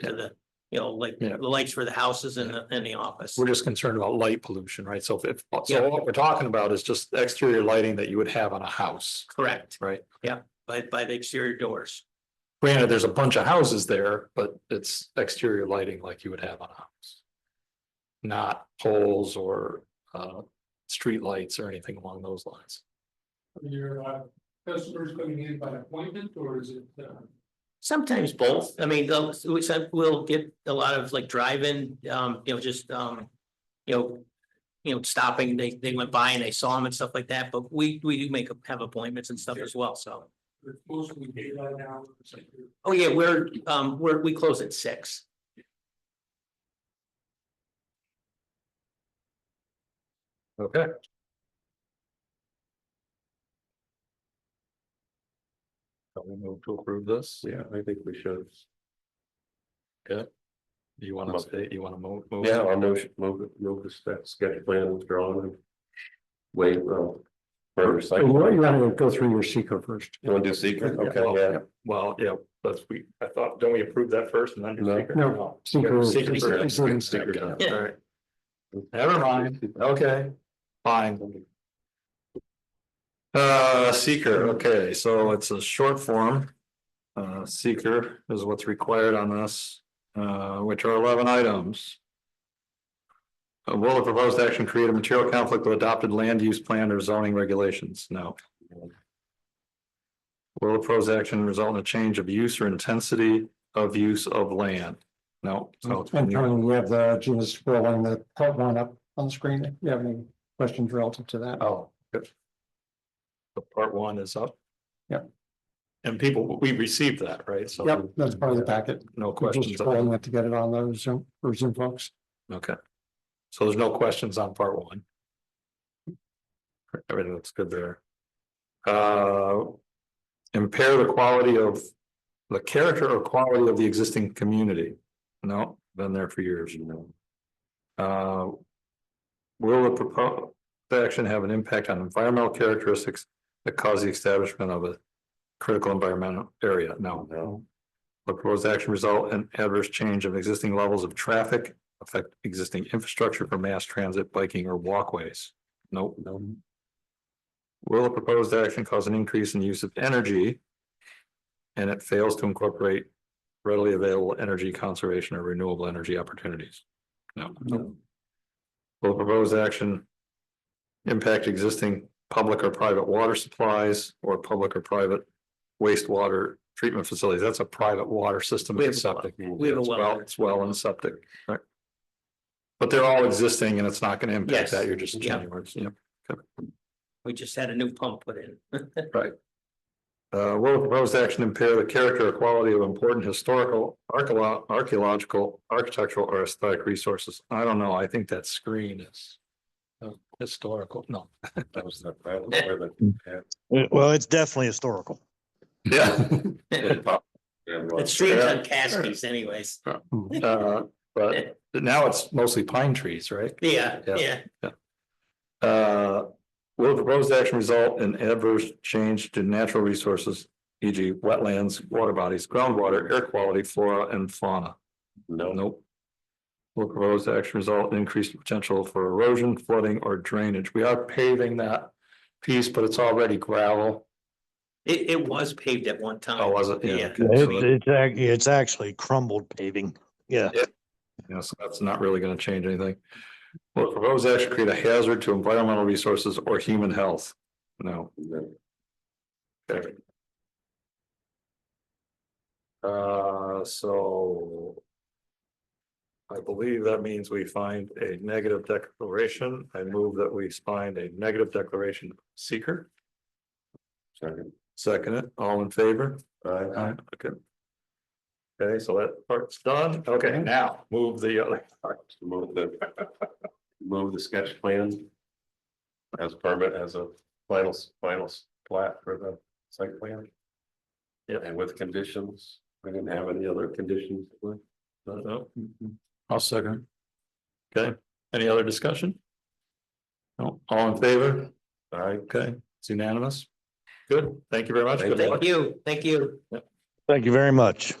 to the, you know, like Yeah. the lights for the houses and the, and the office. We're just concerned about light pollution, right? So if, Yeah. so what we're talking about is just exterior lighting that you would have on a house. Correct. Right. Yeah, by, by the exterior doors. Granted, there's a bunch of houses there, but it's exterior lighting like you would have on a house. Not poles or uh street lights or anything along those lines. Your uh customers coming in by appointment or is it uh? Sometimes both. I mean, those- we said we'll get a lot of like drive-in, um, you know, just, um, you know, you know, stopping, they, they went by and they saw them and stuff like that, but we, we do make, have appointments and stuff as well, so. it's mostly daylight hours? Oh, yeah, we're, um, we're, we close at six. Okay. Shall we move to approve this? Yeah, I think we should. Do you want to stay, you want to move? move? Yeah, I'll notion, move, it- move this, that sketch plan withdrawn and wait, well. For You recycling. want to go through your seeker first? You wanna do secret? Okay, yeah. Well, yeah, that's we, I thought, don't we approve that first and then do No. seeker? No. Secret Secret is- Secret is- first. including secret. Okay, Yeah. all right. Never mind, okay, fine. Uh, seeker, okay, so it's a short form. Uh, seeker is what's required on this, uh, which are eleven items. Uh, Will the proposed action create a material conflict with adopted land use plan or zoning regulations? No. Will the proposed action result in a change of use or intensity of use of land? No. so it's And Tony, we have the Gina's scrolling the part one up on the screen. Do you have any questions relative to that? Oh, good. The part one is up. Yep. And people, we received that, right? So Yep, that's part of the packet. No We're Just questions. on- scrolling it to get it on those Zoom, or Zoom folks. Okay. So there's no questions on part one. Everything looks good there. Uh. Impair the quality of the character or quality of the existing community. No, been there for years. Uh. Will the proposed action have an impact on environmental characteristics that cause the establishment of a critical environmental area? No. No. The proposed action result in adverse change of existing levels of traffic, affect existing infrastructure for mass transit, biking or walkways? Nope. No. Will the proposed action cause an increase in use of energy? And it fails to incorporate readily available energy conservation or renewable energy opportunities? No. No. Will the proposed action impact existing public or private water supplies or public or private wastewater treatment facilities? That's a private water system. We have and a septic. We have a It's well. It's well and septic. right? But they're all existing and it's not gonna impact Yes. that. You're just Yeah. changing words. Yep. We just had a new pump put in. Uh, will the proposed action impair the character or quality of important historical, archaeo- archaeological, architectural, or aesthetic resources? I don't know. I think that screen is uh, historical. No. That was not- that was where the- Well, it's definitely historical. Yeah. yeah, well, It streams on Caskies anyways. Uh, But now it's mostly pine trees, right? Yeah, Yeah. yeah. Uh, will the proposed action result in adverse change to natural resources, e.g. wetlands, water bodies, groundwater, air quality, flora and fauna? No, Nope. Will proposed action result in increased potential for erosion, flooding or drainage? We are paving that piece, but it's already gravel. It, it was paved at one time. Oh, was it? Yeah. okay, so It's, that- it's, ac- it's actually crumbled paving. Yeah. Yeah, so that's not really gonna change anything. Will proposed action create a hazard to environmental resources or human health? No. no, Okay. Uh, so. I believe that means we find a negative declaration. I move that we find a negative declaration seeker. second. Second it, all in favor? Aye. Okay. Okay, so that part's done. Okay, now move the other. Move the, move the sketch plan. As permit, as a final, final plat for the site plan. Yep. And with conditions, we didn't have any other conditions. No. I'll second. Okay, any other discussion? No, all in favor? Aye. Okay, it's unanimous. Good, thank you very much. Good luck. Thank you, thank you. Thank you very much.